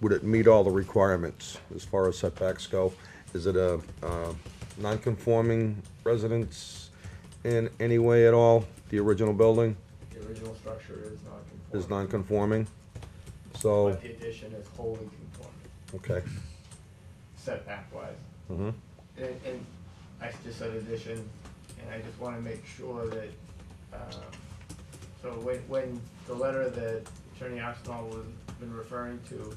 would it meet all the requirements as far as setbacks go? Is it a, uh, non-conforming residence in any way at all? The original building The original structure is non-conforming. is non-conforming? So, But the addition is wholly conforming, okay, setback wise. mhm, And, and I just said addition, and I just wanna make sure that, um, so when, when the letter that Attorney Oxnall was, been referring to,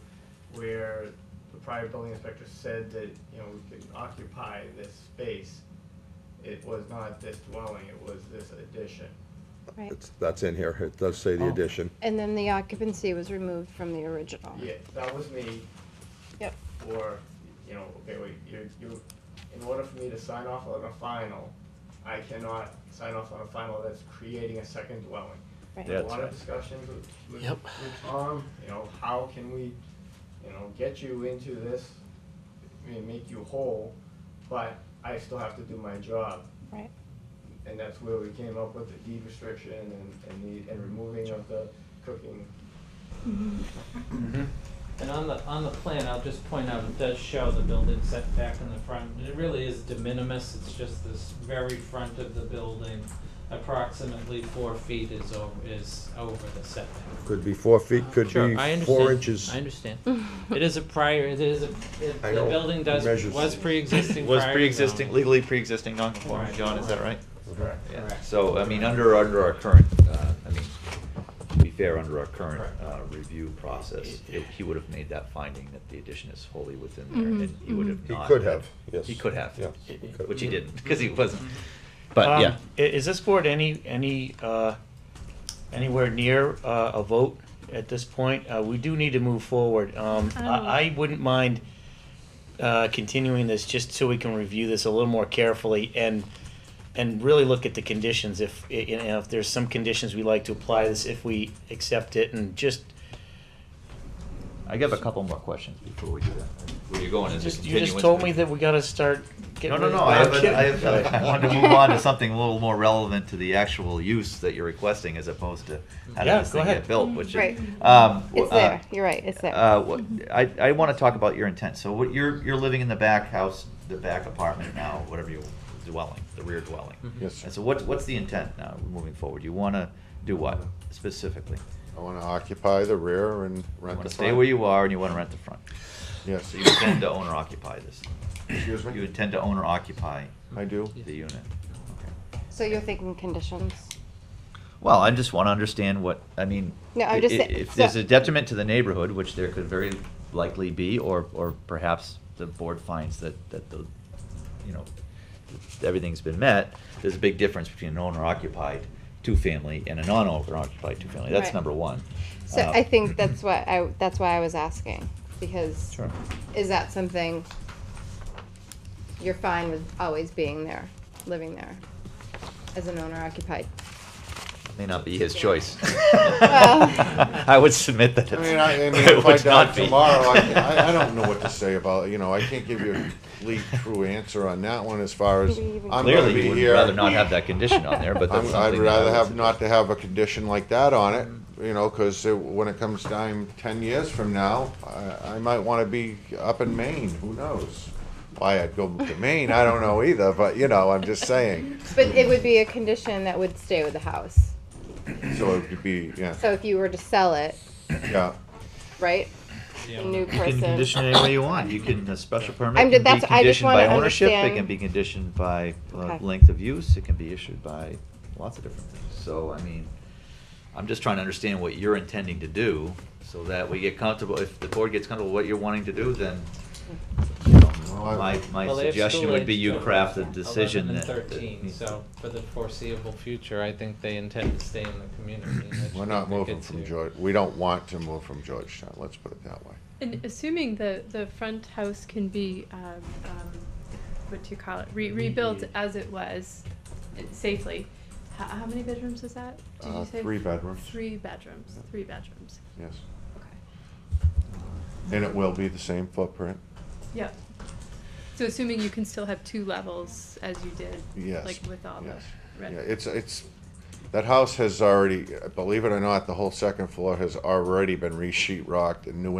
where the prior building inspector said that, you know, we could occupy this space, it was not this dwelling, it was this addition. Right, it's, that's in here, it does say the Oh. addition. and then the occupancy was removed from the original. Yeah, that was me Yep, or, you know, okay, wait, you're, you, in order for me to sign off on a final, I cannot sign off on a final that's creating a second dwelling. Right. There were A That's lot of right. discussions with, with, Yep. with Tom, you know, how can we, you know, get you into this, I mean, make you whole, but I still have to do my job. right, And that's where we came up with the deed restriction and, and the, and removing of the cooking. And on the, on the plan, I'll just point out, it does show the building setback in the front. It really is de minimis, it's just this very front of the building, approximately four feet is over, is over the setback. Could be four feet, could Sure, be I four understand. inches. I understand. It is a prior, it is a, it- I the know. building does, Measures. was pre-existing prior Was to zoning. pre-existing, legally pre-existing non-conforming, Right. John, is that right? Correct. Yeah. Correct. So, I mean, under, under our current, uh, I mean, to be fair, under our current, Correct. uh, review process, it- he would have made that finding that the addition is wholly within there, and he would have He not. could have, yes. He could have. Yes, he could have. Which he didn't, because he wasn't, but Um, yeah. i- Is this board any, any, uh, anywhere near uh, a vote at this point? Uh, We do need to move forward. Um, I I wouldn't mind uh, continuing this just so we can review this a little more carefully and, and really look at the conditions if, i- you know, if there's some conditions we like to apply this, if we accept it and just, I have a couple more questions before we do that. Where you're going is a just- you just continuance told with- me that we gotta start No, getting. no, rid of- no, I I'm have, a- I have, kidding. I wanted to move on to something a little more relevant to the actual use that you're requesting as opposed to how Yeah, did this go thing ahead. get built, which is. Mm-hmm. Right. um, w- it's uh, there, you're right, it's there. Mhm. Mm-hmm. uh, what- I, I want to talk about your intent. So what you're, you're living in the back house, the back apartment now, whatever you, dwelling, the rear dwelling. Mm-hmm. Mhm. Yes, And sir. so what, what's the intent now moving forward? You want to do what specifically? I want to occupy the rear and You rent want the to stay front. where you are and you want to rent the front. Yes. So you intend to own or occupy this. Excuse You me? intend to own or occupy I do. the unit. Okay. So you're thinking conditions? Well, I just want to understand what, I mean. No, I'm i- just i- saying- If so- there's a detriment to the neighborhood, which there could very likely be, or, or perhaps the board finds that, that the, you know, everything's been met, there's a big difference between an owner occupied two-family and a non-owner occupied two-family. That's Right. number one. So Uh, I think that's what I, that's why I was asking, because Sure. is that something you're fine with always being there, living there, as an owner occupied? May not be his choice. Well- I would submit that I it's- mean, I, I mean, it if I would die not be. tomorrow, I, I, I don't know what to say about, it, you know, I can't give you a complete, true answer on that one as far as, Do we even- I'm gonna Clearly, be you would here. rather not have that condition on there, but that's I'm, something. I'd that Mm-hmm. I rather would have, suggest. not to have a condition like that on it, you know, because when it comes time ten years from now, I, I might want to be up in Maine, who knows? Why I'd go to Maine, I don't know either, but, you know, I'm just saying, But it would be a condition that would stay with the house. so it could be, yeah, So if you were to sell it, yeah. right, Yeah. the new You can person, condition it any way you want. You can, a special permit I'm ju- can be that's- I just conditioned by wanna ownership, it understand- can be conditioned by uh, Okay. length of use, it can be issued by lots of different things. So, I mean, I'm just trying to understand what you're intending to do, so that we get comfortable, if the board gets comfortable with what you're wanting to do, then, you know, Well, Oh, I- my, my Well, they have suggestion school would be age you children, craft a 11 decision that. and that thirteen, meets- so for the foreseeable future, I think they intend to stay in the community. and I just We're think not they moving get from to- George, we don't want to move from Georgetown, let's put it that way. And assuming the, the front house can be, um, um, what do you call it, re- rebuilt Remediated. as it was uh, safely, how, how many bedrooms is that? Did Uh, you say? three bedrooms. Three bedrooms, Yeah. three bedrooms, Yes, okay, and it will be the same footprint, yep. So assuming you can still have two levels as you did, yes. like with all the yes. red. Yeah, it's, it's, that house has already, believe it or not, the whole second floor has already been re-sheet rocked and new